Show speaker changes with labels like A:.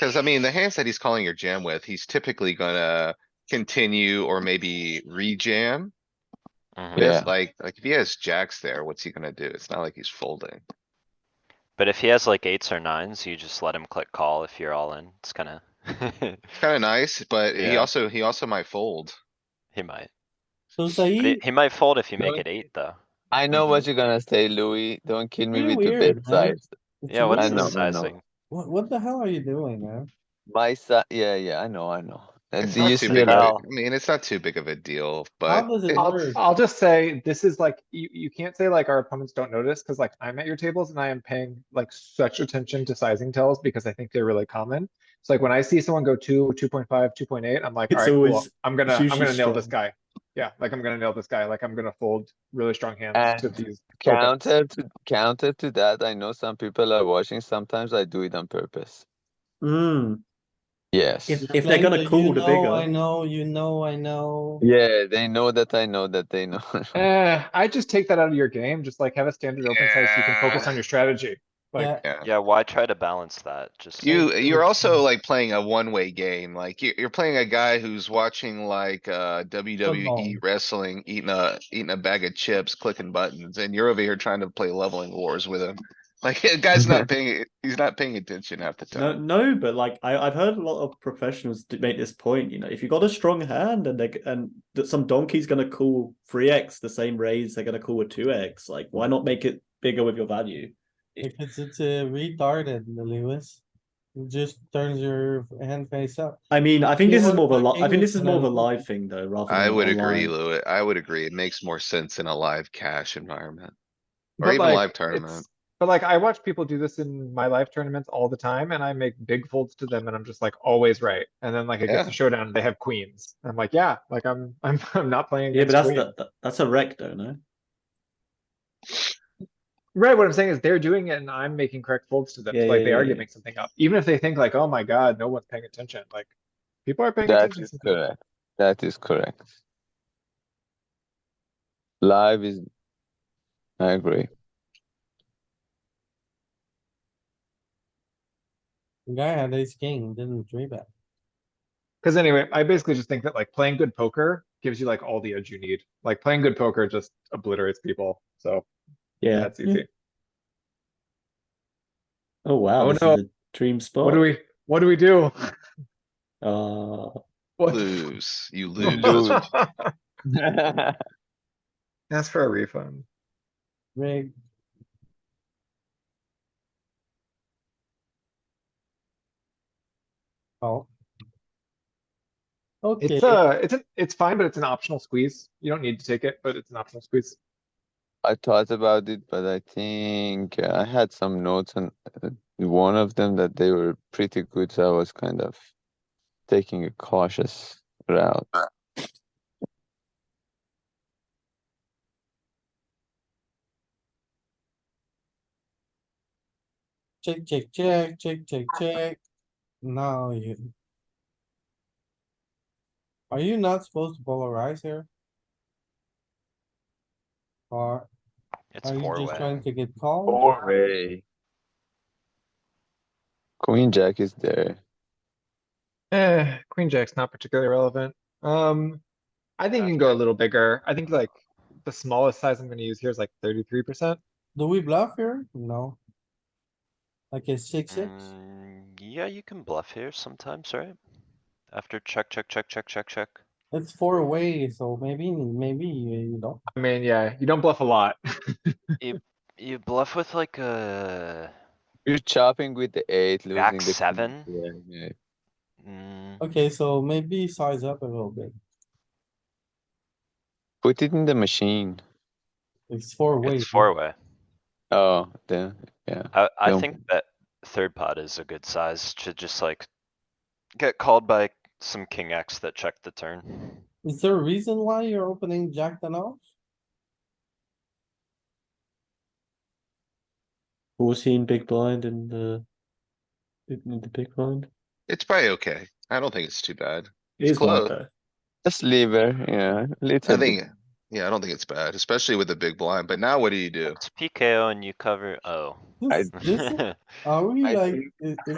A: Cause I mean, the hands that he's calling your jam with, he's typically gonna continue or maybe rejam.
B: Mhm.
A: With
C: Yeah.
A: like, like if he has jacks there, what's he gonna do? It's not like he's folding.
B: But if he has like eights or nines, you just let him click call if you're all in. It's kinda.
A: It's kinda nice, but he
B: Yeah.
A: also, he also might fold.
B: He might.
D: So
B: But
D: Zaid,
B: he- He might fold if you make
C: Really?
B: it eight, though.
C: I know
A: Mhm.
C: what you're gonna say, Louis. Don't kill me
D: Pretty
C: with the
D: weird,
C: big
D: man.
C: size.
D: it's
B: Yeah, what's
C: I know,
B: the
C: I
D: weird.
C: know.
B: sizing?
D: What, what the hell are you doing, man?
C: My si- yeah, yeah, I know, I know. And
A: It's
C: do you
A: not too
C: see
A: big of a- I
C: how?
A: mean, it's not too big of a deal,
D: How
A: but
D: does it
A: it-
E: I'll,
D: work?
E: I'll just say, this is like, you, you can't say like our opponents don't notice, cause like I'm at your tables and I am paying like such attention to sizing tells because I think they're really common. It's like when I see someone go two, two point five, two point eight, I'm like,
F: It's
E: alright, cool,
F: always-
E: I'm gonna,
F: it's
E: I'm
F: usually
E: gonna nail this
F: strong.
E: guy. Yeah, like I'm gonna nail this guy, like I'm gonna fold really strong hands
C: And
E: to these. opens.
C: Counter to counter to that, I know some people are watching. Sometimes I do it on purpose.
F: Hmm.
C: Yes.
F: If, if they're gonna call the bigger.
D: I know, you know, I know.
C: Yeah, they know that I know that they know.
E: Eh, I just take that out of your game, just like have a standard open size, so you can focus
A: Yeah.
E: on your strategy.
D: Yeah.
E: Like,
A: yeah.
B: Yeah, why try to balance that? Just.
A: You, you're also like playing a one-way game, like you, you're playing a guy who's watching like, uh, WWE
D: Football.
A: wrestling, eating a, eating a bag of chips, clicking buttons, and you're over here trying to play leveling wars with him. Like, the guy's not paying, he's not paying attention half the
F: No,
A: time.
F: no, but like I, I've heard a lot of professionals d- make this point. You know, if you got a strong hand and they and that some donkey's gonna call three x the same raise they're gonna call a two x, like why not make it bigger with your value?
D: If it's, it's uh, retarded, Lewis. It just turns your hand face up.
F: I mean, I think
D: Yeah,
F: this is
D: what
F: more of a
D: about
F: li- I think this is more of a
D: English and-
F: live thing though, rather.
A: I
F: than
A: would agree,
F: online.
A: Louis. I would agree. It makes more sense in a live cash environment. Or
E: But,
A: even
E: like,
A: live tournament.
E: it's- But like, I watch people do this in my live tournaments all the time and I make big folds to them and I'm just like always right. And then like it gets
A: Yeah.
E: to showdown, they have queens. I'm like, yeah, like I'm, I'm, I'm not playing.
F: Yeah, but
E: against
F: that's
E: queens.
F: that, that- that's a wreck though, no?
E: Right, what I'm saying is they're doing it and I'm making correct folds to them.
F: Yeah,
E: so, Like
F: yeah,
E: they are
F: yeah,
E: giving something up, even if they think like, oh my god, no one's paying attention, like. People are paying
C: That
E: attention.
C: is
E: sometimes.
C: correct. That is correct. Live is. I agree.
D: The Guy had ace king, didn't three bet.
E: Cause anyway, I basically just think that like playing good poker gives you like all the edge you need. Like playing good poker just obliterates people, so
F: Yeah.
E: that's easy.
F: Oh wow,
E: Oh,
F: this
E: no.
F: is a dream spot.
E: What do we, what do we do?
F: Uh,
E: What the f-
A: Lose, you lose.
C: Lose.
E: Ask for a refund.
D: Rick, oh. Okay,
E: It's uh, it's, a- it's fine, but it's an optional squeeze. You don't need to take it, but it's an optional squeeze.
C: I thought about it, but I think uh, I had some notes on uh, one of them that they were pretty good, so I was kind of taking a cautious route.
D: check, check, check, check, check, check. Now you. Are you not supposed to polarize here? Or
B: It's
D: are you
B: four
D: just trying
B: way.
D: to get called?
C: Four way. Queen Jack is there.
E: Eh, queen jack's not particularly relevant. Um, I think you can go a little bigger. I think like the smallest size I'm gonna use here is like thirty-three percent.
D: Do we bluff here? No. Like a six, six?
B: Mm, Yeah, you can bluff here sometimes, right? After check, check, check, check, check, check.
D: It's four way, so maybe, maybe you you don't.
E: I mean, yeah, you don't bluff a lot.
B: You bluff with like a,
C: You're chopping with the eight, losing
B: Jack
C: the queen.
B: seven?
C: Yeah, yeah.
B: mm,
D: Okay, so maybe size up a little bit.
C: Put it in the machine.
D: It's four way.
B: it's four way.
C: Oh, then yeah.
B: I, I
C: Yeah.
B: think that third pot is a good size to just like get called by some king X that checked the turn.
D: Is there a reason why you're opening jack ten off?
F: fourteen big blind in the in the big blind.
A: It's probably okay. I don't think it's too bad.
F: It is live
A: close.
F: though.
C: Just lever, yeah. Little
A: I
C: bit.
A: think, yeah, I don't think it's bad, especially with the big blind, but now what do you do?
B: It's PKO and you cover, oh.
D: This- this is- Are we
C: I
D: like,
C: think-
D: is, is